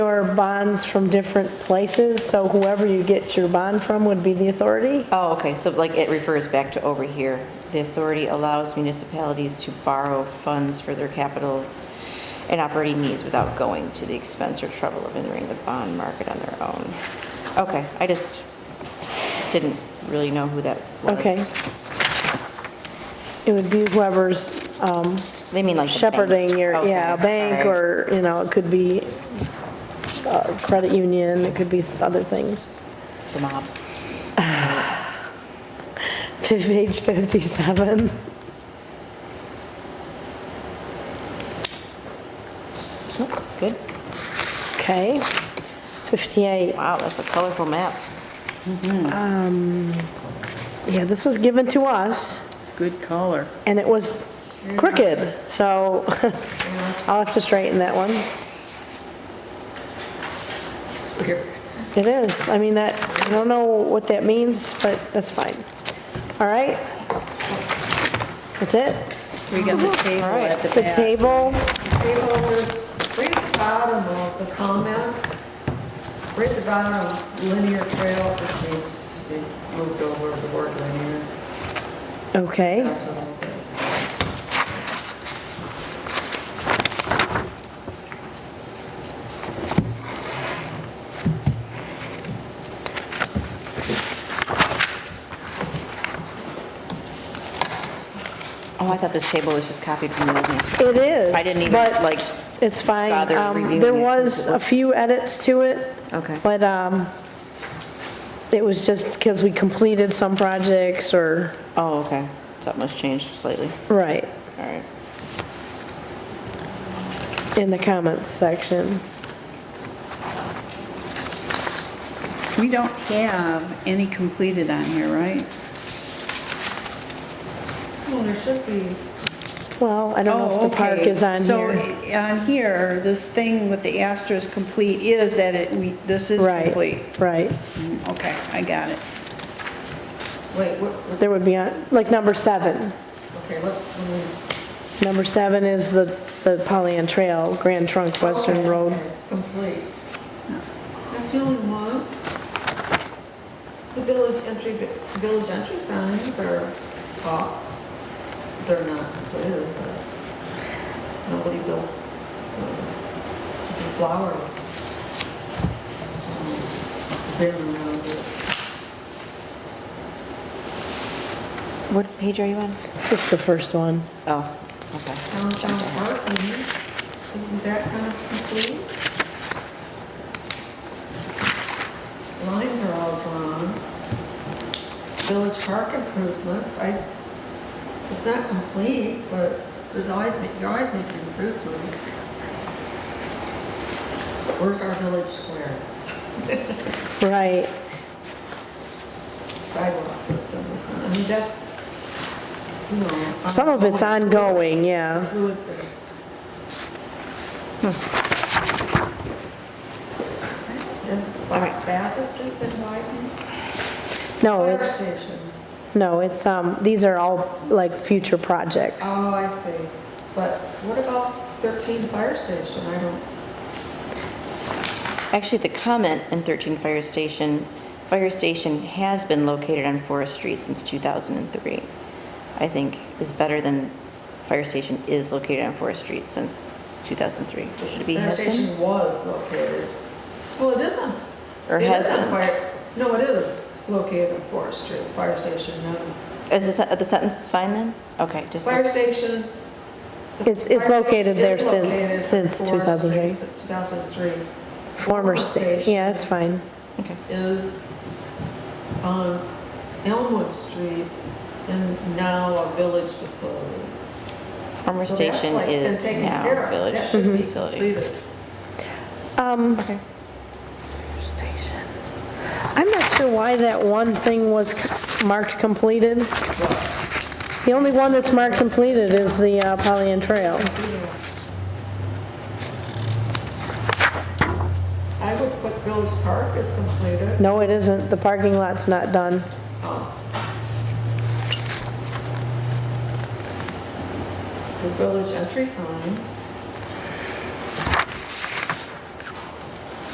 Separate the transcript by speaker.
Speaker 1: Or bonds from different places, so whoever you get your bond from would be the authority?
Speaker 2: Oh, okay, so like it refers back to over here. The authority allows municipalities to borrow funds for their capital and operating needs without going to the expense or trouble of entering the bond market on their own. Okay, I just didn't really know who that was.
Speaker 1: Okay. It would be whoever's um,
Speaker 2: They mean like the bank.
Speaker 1: shepherding your,
Speaker 2: Okay,
Speaker 1: yeah, a bank
Speaker 2: all right.
Speaker 1: or, you know, it could be uh, credit union, it could be other things.
Speaker 2: The mob.
Speaker 1: Page 57.
Speaker 2: Good.
Speaker 1: Okay. 58.
Speaker 2: Wow, that's a colorful map.
Speaker 1: Yeah, this was given to us,
Speaker 3: Good caller.
Speaker 1: and it was crooked, so I'll have to straighten that one. It is. I mean, that, I don't know what that means, but that's fine. All right? That's it?
Speaker 3: We got the table at the
Speaker 1: The
Speaker 3: back.
Speaker 1: table,
Speaker 4: People, there's right at the bottom of the comments, right at the bottom of linear trail, this needs to be moved over the word linear.
Speaker 1: okay.
Speaker 4: That's all.
Speaker 2: Oh, I thought this table was just copied from the old one.
Speaker 1: It is.
Speaker 2: I didn't even,
Speaker 1: but
Speaker 2: like,
Speaker 1: It's fine.
Speaker 2: bother
Speaker 1: Um,
Speaker 2: reviewing
Speaker 1: There
Speaker 2: it.
Speaker 1: was a few edits to it.
Speaker 2: Okay.
Speaker 1: But um, it was just because we completed some projects or,
Speaker 2: Oh, okay. Something was changed slightly.
Speaker 1: right,
Speaker 2: All right.
Speaker 1: in the comments section.
Speaker 3: We don't have any completed on here, right?
Speaker 4: Well, there should be.
Speaker 1: Well, I don't know
Speaker 3: Oh,
Speaker 1: if the park
Speaker 3: okay.
Speaker 1: is on here.
Speaker 3: So on here, this thing with the asterisk complete is that it, we, this is complete.
Speaker 1: Right, right.
Speaker 3: Mm, Okay, I got it.
Speaker 4: Wait, what, what-
Speaker 1: There would be, on like, number seven.
Speaker 4: okay, let's, move-
Speaker 1: Number seven is the the Pollyant Trail, Grand Trunk Western Road.
Speaker 4: okay, complete. That's the only one. The village entry, village entry signs are up. They're not completed, but nobody built um, the flower. um, Bin around it.
Speaker 2: What page are you on?
Speaker 1: Just the first one.
Speaker 2: Oh, okay.
Speaker 4: Downtown parking, isn't that kind of complete? Lines are all drawn. Village park improvements, I, it's not complete, but there's always, ma- you're always making improvements. Where's our village square?
Speaker 1: Right.
Speaker 4: Sidewalk system, isn't it? I mean, that's, you know.
Speaker 1: Some of it's
Speaker 4: ongoing.
Speaker 1: ongoing, yeah.
Speaker 4: Fluid thing. Does Bassett Street been widened?
Speaker 1: No,
Speaker 4: Fire
Speaker 1: Oh, it's,
Speaker 4: station.
Speaker 1: no, it's, um, these are all, like, future projects.
Speaker 4: Oh, I see. But what about 13 Fire Station? I don't,
Speaker 2: Actually, the comment in 13 Fire Station, Fire Station has been located on Forest Street since 2003, I think is better than Fire Station is located on Forest Street since 2003. Should it be
Speaker 4: Fire
Speaker 2: has been?
Speaker 4: Station was located. Well, it isn't.
Speaker 2: Or has been.
Speaker 4: No, it is located on Forest Street, Fire Station, no.
Speaker 2: Is the sen- the sentence is fine then? Okay, just,
Speaker 4: Fire station. the
Speaker 1: It's- it's
Speaker 4: fire
Speaker 1: located
Speaker 4: station
Speaker 1: there
Speaker 4: is
Speaker 1: since-
Speaker 4: located
Speaker 1: since
Speaker 4: on Forest
Speaker 1: 2003.
Speaker 4: Street Since 2003
Speaker 1: Former state, yeah, it's fine.
Speaker 2: okay.
Speaker 4: is on Elmwood Street and now a village facility.
Speaker 2: Former
Speaker 4: So that's
Speaker 2: station
Speaker 4: like been
Speaker 2: is
Speaker 4: taken care
Speaker 2: now
Speaker 4: of.
Speaker 2: Village
Speaker 4: That should be
Speaker 2: Facility.
Speaker 4: completed.
Speaker 1: Um, I'm not sure why that one thing was c- marked completed. The only one that's marked completed is the uh, Pollyant Trail.
Speaker 4: I would put Village Park as completed.
Speaker 1: No, it isn't. The parking lot's not done.
Speaker 4: The village entry signs.